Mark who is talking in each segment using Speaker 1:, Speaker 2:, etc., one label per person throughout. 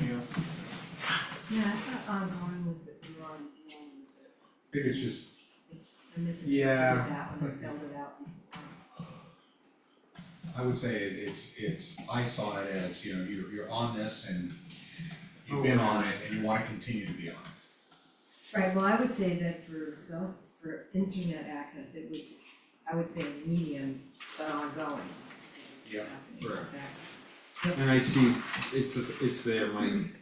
Speaker 1: Yes.
Speaker 2: Yeah, I thought ongoing was that we were on the end of it.
Speaker 1: I think it's just,
Speaker 2: I
Speaker 1: Yeah.
Speaker 2: misinterpreted that when I filled it out.
Speaker 3: I would say it- it's, it's, I saw it as, you know, you're, you're on this and you've been on it and you wanna continue to be on it.
Speaker 2: Right, well, I would say that for cells, for internet access, it would, I would say medium, but ongoing. is
Speaker 3: Yeah,
Speaker 2: happening,
Speaker 3: correct.
Speaker 2: exactly.
Speaker 4: And I see, it's, the- it's there, Mike,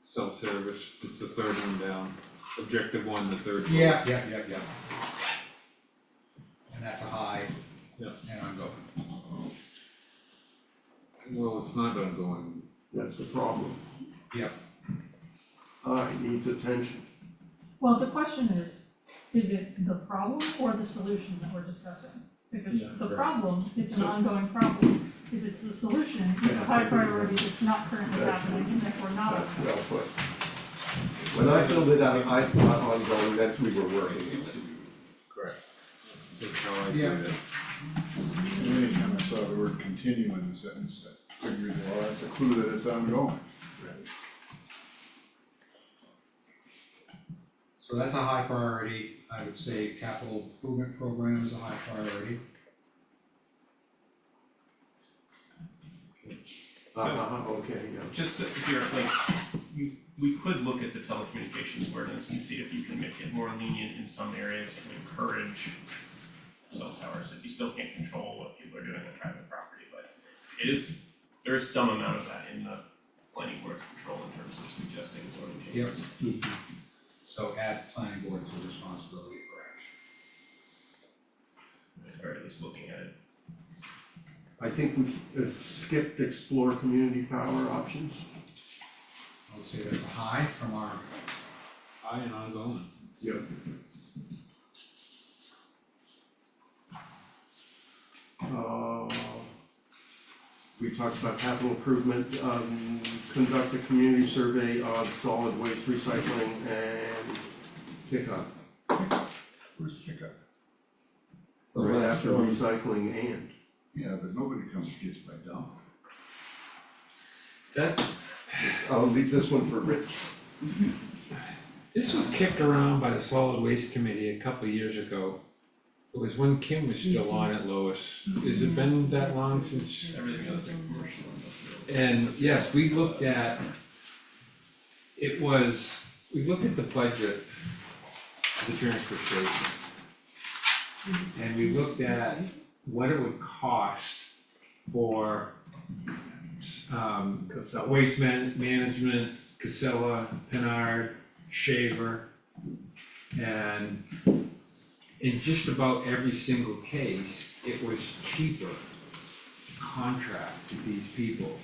Speaker 4: self-service, it's the third one down, objective one, the third one.
Speaker 3: Yeah, yeah, yeah, yeah. And that's a high.
Speaker 4: Yeah.
Speaker 3: And I'm going,
Speaker 4: Well, it's not ongoing,
Speaker 5: That's the problem.
Speaker 3: yeah,
Speaker 5: Uh, it needs attention.
Speaker 6: Well, the question is, is it the problem or the solution that we're discussing? If it's the problem, it's an ongoing problem. If it's the solution, it's a high priority that's not currently
Speaker 5: That's-
Speaker 6: happening and therefore not.
Speaker 5: That's well put. When I filled it out, I thought ongoing, that we were working on it.
Speaker 7: Correct.
Speaker 4: that's how I do
Speaker 3: Yeah.
Speaker 4: it.
Speaker 7: Anytime I saw the word continue in the sentence, I figured, well, that's a clue that it's ongoing.
Speaker 3: so that's a high priority, I would say capital improvement program is a high priority.
Speaker 5: Uh, uh, uh, okay, yeah.
Speaker 8: Just so- if you're like, you, we could look at the telecommunications ordinance and see if you can make it more lenient in some areas to encourage cell towers, if you still can't control what people are doing on private property, but it is, there is some amount of that in the planning board's control in terms of suggesting sort of changes.
Speaker 3: So add planning board to responsibility for action.
Speaker 8: Or at least looking at it.
Speaker 5: I think we uh, skipped explore community power options.
Speaker 3: I would say that's a high from our,
Speaker 4: High and ongoing.
Speaker 5: Yep. Uh, we talked about capital improvement, um, conduct a community survey of solid waste recycling and pickup.
Speaker 7: Where's pickup?
Speaker 5: Right after recycling and.
Speaker 7: Yeah, but nobody comes and gets my dump.
Speaker 9: That,
Speaker 5: I'll leave this one for Rich.
Speaker 9: this was kicked around by the solid waste committee a couple of years ago. It was when Kim was Mm-hmm. still on it, Lois, has it been that long since?
Speaker 8: Everything other than commercial industrial.
Speaker 9: And yes, we looked at, it was, we looked at the budget, of the transfer station. And we looked at what it would cost for, um, waste man- management, Casella, Pinard, Shaver. And in just about every single case, it was cheaper to contract to these people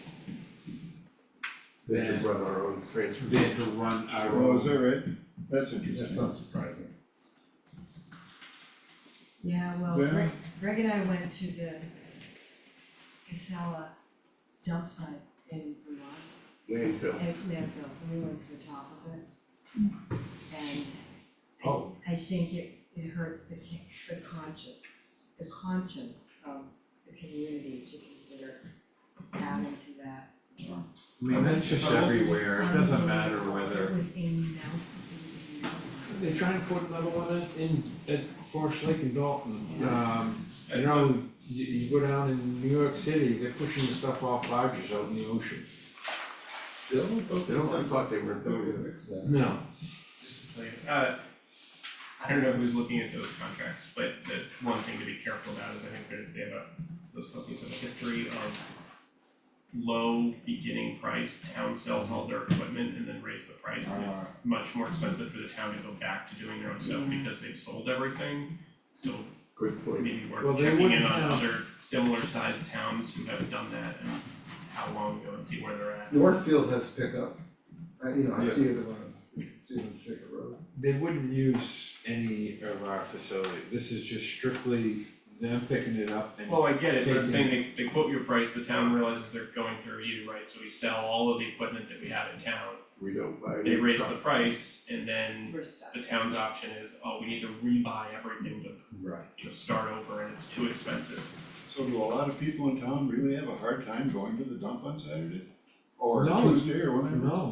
Speaker 5: They should
Speaker 9: than,
Speaker 5: run our own transfer.
Speaker 9: than to run our own.
Speaker 7: Oh, is that right? That's interesting.
Speaker 3: that's not surprising.
Speaker 2: Yeah, well,
Speaker 7: Yeah.
Speaker 2: Greg, Greg and I went to the Casella dump site in Vermont.
Speaker 5: Landfill.
Speaker 2: And landfill, we went to the top of it. And
Speaker 9: Oh.
Speaker 2: I, I think it, it hurts the ca- the conscience, the conscience of the community to consider adding to that.
Speaker 9: I mean, that's just everywhere, it doesn't matter whether,
Speaker 2: It was a mountain, it was a mountain.
Speaker 9: they're trying to put another one in, in, at Forest Lake and Dalton.
Speaker 5: Yeah.
Speaker 9: Um, you know, you, you go down in New York City, they're pushing the stuff off barges out in the ocean.
Speaker 3: Still,
Speaker 5: No, I thought they were doing it.
Speaker 9: No.
Speaker 8: Just like, uh, I don't know who's looking at those contracts, but the one thing to be careful about is I think there's, they have a, those companies have a history of low beginning price, town sells all their equipment and then raise the price, and
Speaker 9: Uh.
Speaker 8: it's much more expensive for the town to go back to doing their own stuff because they've sold everything. So
Speaker 5: Good point.
Speaker 8: maybe
Speaker 9: Well,
Speaker 8: we're
Speaker 9: they
Speaker 8: checking in
Speaker 9: wouldn't
Speaker 8: on
Speaker 9: have-
Speaker 8: other similar sized towns who haven't done that and how long ago and see where they're at.
Speaker 10: Northfield has pickup, I, you know, I
Speaker 7: Yeah.
Speaker 10: see it on, see it on Shaker Road.
Speaker 9: They wouldn't use any of our facility, this is just strictly them picking it up and.
Speaker 8: Well, I get it, but I'm
Speaker 9: Taking-
Speaker 8: saying they they quote your price, the town realizes they're going through you, right, so we sell all of the equipment that we have in town.
Speaker 5: We don't buy.
Speaker 8: They raise the price and then
Speaker 2: We're stuck.
Speaker 8: the town's option is, oh, we need to rebuy everything to,
Speaker 3: Right.
Speaker 8: you know, start over and it's too expensive.
Speaker 7: So do a lot of people in town really have a hard time going to the dump on Saturday? Or
Speaker 9: No.
Speaker 7: Tuesday or whenever?
Speaker 9: No,